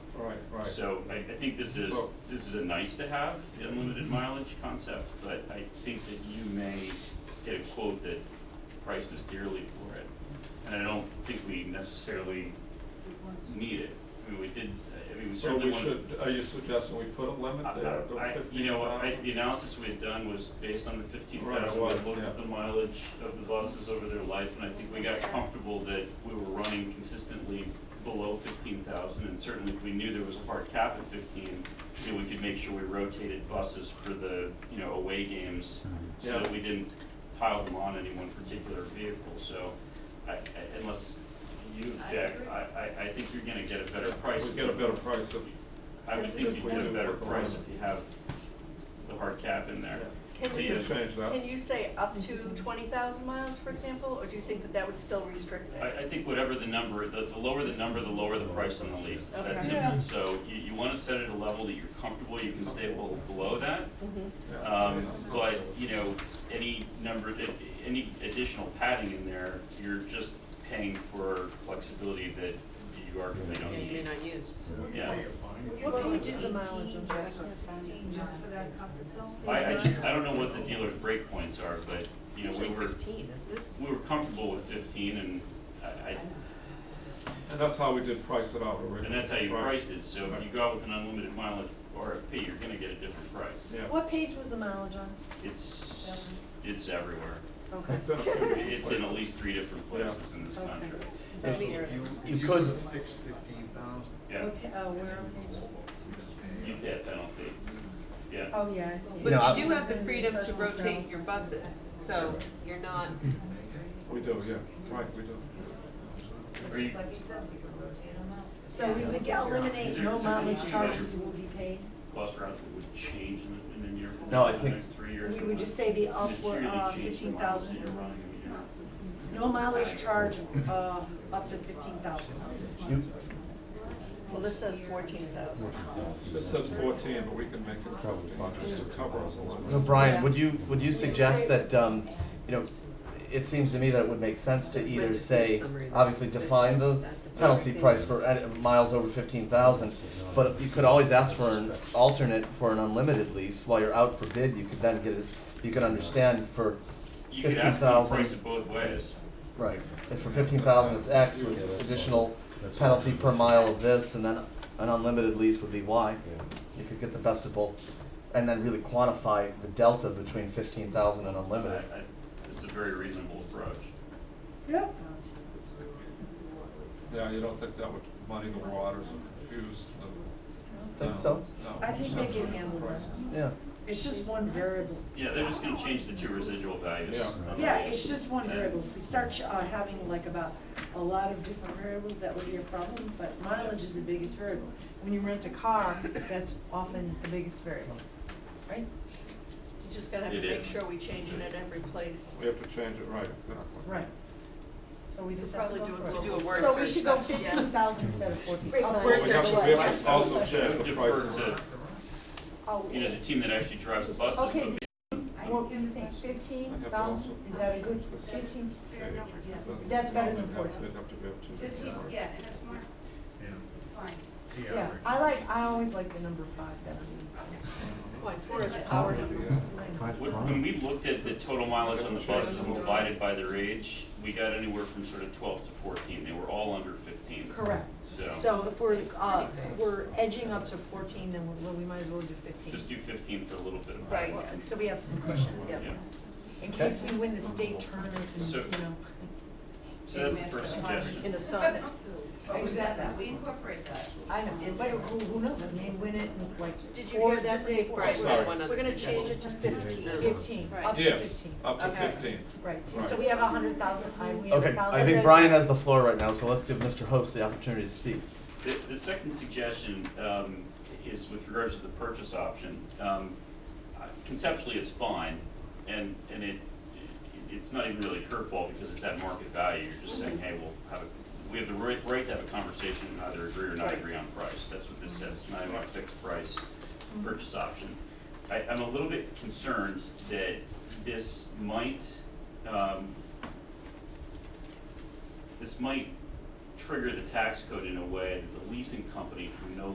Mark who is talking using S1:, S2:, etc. S1: So I, I think this is,
S2: So-
S1: this is a nice to have, the unlimited mileage concept, but I think that you may get a quote that prices dearly for it. And I don't think we necessarily need it. I mean, we did, I mean, we
S2: So
S1: certainly
S2: we
S1: want.
S2: should, are you suggesting we put a limit there of
S1: I, you
S2: fifteen
S1: know, I, the
S2: thousand?
S1: analysis we had done was based on the fifteen
S2: Right, it
S1: thousand, we
S2: was,
S1: looked at
S2: yeah.
S1: the mileage of the buses over their life, and I think we got comfortable that we were running consistently below fifteen thousand, and certainly if we knew there was a hard cap at fifteen, you know, we could make sure we rotated buses for the, you know, away games, so
S2: Mm-hmm. Yeah.
S1: that we didn't pile them on any one particular vehicle, so, I, I, unless you,
S3: I
S1: Jack,
S3: agree.
S1: I, I, I think you're gonna get a better price.
S2: We
S1: if
S2: get a
S1: you-
S2: better price of,
S1: I would
S3: That's a
S1: think
S3: good
S1: you'd get a
S2: point.
S1: better price if you have the hard cap in there.
S3: Can
S2: we
S1: The,
S3: you-
S2: can
S1: uh,
S2: change that.
S3: Can you say up to twenty thousand miles, for example, or do you think that that would still restrict it?
S1: I, I think whatever the number, the, the lower the number, the lower the price on the lease, it's
S3: Okay.
S1: that
S4: Yeah.
S1: simple. So you, you wanna set it at a level that you're comfortable, you can stay well below that.
S3: Mhm.
S2: Yeah.
S1: Um, but, you know, any number, that- any additional padding in there, you're just paying for flexibility that you arguably
S5: Yeah,
S1: don't
S5: you may
S1: need.
S5: not use.
S1: Yeah.
S6: What
S3: Well,
S6: page
S3: just
S6: is
S3: the
S6: the
S3: mileage
S6: mileage
S3: on
S6: just
S3: that.
S6: for sixteen, just for that comfort zone?
S1: I, I just, I don't know what the dealer's breakpoints are, but, you know, we
S5: Usually
S1: were,
S5: fifteen, isn't it?
S1: we were comfortable with fifteen and I, I,
S2: And that's how we did price it out originally.
S1: And that's how you
S2: right?
S1: priced it, so if you go out with an unlimited mileage RFP, you're gonna get a different price.
S2: Yeah.
S6: What page was the mileage on?
S1: It's, it's everywhere.
S3: Okay.
S2: It's in a few
S1: It's in at
S2: places.
S1: least three different places in this
S3: Okay.
S1: contract.
S3: That'd be your-
S7: You could fix fifteen thousand.
S1: Yeah,
S6: What pa- oh, where on page?
S1: you pay a penalty. Yeah,
S6: Oh, yeah, I see.
S7: Yeah.
S5: But
S7: I-
S5: you do have the freedom to rotate your buses, so you're not,
S2: We do, yeah, right, we do.
S1: Are you-
S8: Like you said, we could rotate them out.
S6: So we would eliminate
S1: Is there-
S6: no
S1: is there
S6: mileage
S1: anything
S6: charges
S1: that-
S6: will be paid?
S1: bus routes that would change in the, in the year,
S7: No,
S1: in
S7: I
S1: the
S7: think-
S1: next three years.
S6: We
S1: that
S6: would just say the upward,
S1: materially
S6: uh,
S1: change the
S6: fifteen
S1: miles that
S6: thousand,
S1: you're running in a year.
S6: no mileage charge, uh, up to fifteen thousand.
S7: You,
S3: Well, this says fourteen thousand.
S2: This says fourteen, but we can make it sixteen, just to cover us a little.
S7: so Brian, would you, would you suggest that, um, you know, it seems to me that it would make sense to
S5: That's my
S7: either
S5: business
S7: say,
S5: summary.
S7: obviously define the
S5: That's the
S7: penalty
S5: summary.
S7: price for at- miles over fifteen thousand, but you could always ask for an alternate for an unlimited lease while you're out for bid, you could then get it, you could understand for
S1: You could
S7: fifteen
S1: ask them to
S7: thousand.
S1: price it both ways.
S7: Right, and for fifteen thousand, it's X with additional penalty per mile of this, and then an unlimited lease would be Y. You could get the best of both, and then really quantify the delta between fifteen thousand and
S1: I,
S7: unlimited.
S1: I, it's a very reasonable approach.
S6: Yep.
S2: Yeah, you don't think that would muddy the waters and confuse the.
S7: Think
S2: no,
S7: so?
S2: no.
S6: I think they can handle that.
S7: Yeah,
S6: It's just one variable.
S1: Yeah, they're just gonna change the two residual values.
S2: Yeah.
S1: on the-
S6: Yeah, it's just one variable. If we start uh, having like about a lot of different variables, that would be a problem, but mileage is the biggest variable. When you rent a car, that's often the biggest variable, right?
S3: You just gotta have to
S1: It
S3: make
S1: is.
S3: sure we change it at every place.
S2: We have to change it, right, exactly.
S6: Right. So we just
S3: We'll
S6: have to go
S3: probably do a-
S6: through
S5: to
S6: it.
S5: do a word search.
S6: So we should go
S5: that's- yeah.
S6: fifteen thousand instead of fourteen.
S8: Right,
S6: Oh,
S8: but-
S2: But
S5: Where's
S2: we
S5: your
S2: have to, we have to
S5: what?
S2: also change the price.
S1: Defer to,
S6: oh,
S1: you know, the team that actually drives the buses,
S6: Okay,
S1: but
S6: What do you think, fifteen thousand, is that a good fifteen?
S8: Fair number, yes.
S6: That's better than 14.
S2: They'd have to be up to.
S8: Fifteen, yeah, and it's more, it's fine.
S6: Yeah, I like, I always like the number five better.
S3: Point four is power numbers.
S1: When when we looked at the total mileage on the buses and divided by their age, we got anywhere from sort of twelve to fourteen, they were all under fifteen.
S6: Correct.
S1: So,
S6: So if we're, uh, we're edging up to fourteen, then we, well, we might as well do fifteen.
S1: just do fifteen for a little bit of.
S3: Right,
S6: So we have some cushion,
S1: Yeah,
S6: in case we win the state tournament, and,
S1: So-
S6: you know.
S1: so that's the first
S3: in
S1: suggestion.
S3: the sun.
S6: Oh,
S8: But we said that, we incorporate that.
S6: I know, but who, who knows, we may win it, and it's like,
S3: Did you
S6: or
S3: hear
S6: that's
S3: that,
S6: a
S3: Dave?
S6: sport.
S5: Right, we have
S2: Sorry.
S5: one other
S3: We're gonna
S5: suggestion.
S3: change it to fifteen.
S6: Fifteen,
S5: Right.
S6: up to
S2: Yes,
S6: fifteen.
S2: up to
S5: Okay.
S2: fifteen.
S6: Right, so
S2: Right.
S6: we have a hundred thousand, I, we have a
S7: okay,
S6: thousand.
S7: I think Brian has the floor right now, so let's give Mr. Host the opportunity to speak.
S1: The, the second suggestion, um, is with regards to the purchase option. Um, I- conceptually, it's fine, and, and it, it's not even really a curveball because it's at market value, you're just saying, hey, we'll have a, we have the right, right to have a conversation and either agree or not agree on price, that's what this says, It's not even a fixed price purchase option. I, I'm a little bit concerned that this might, um, this might trigger the tax code in a way that the leasing company can no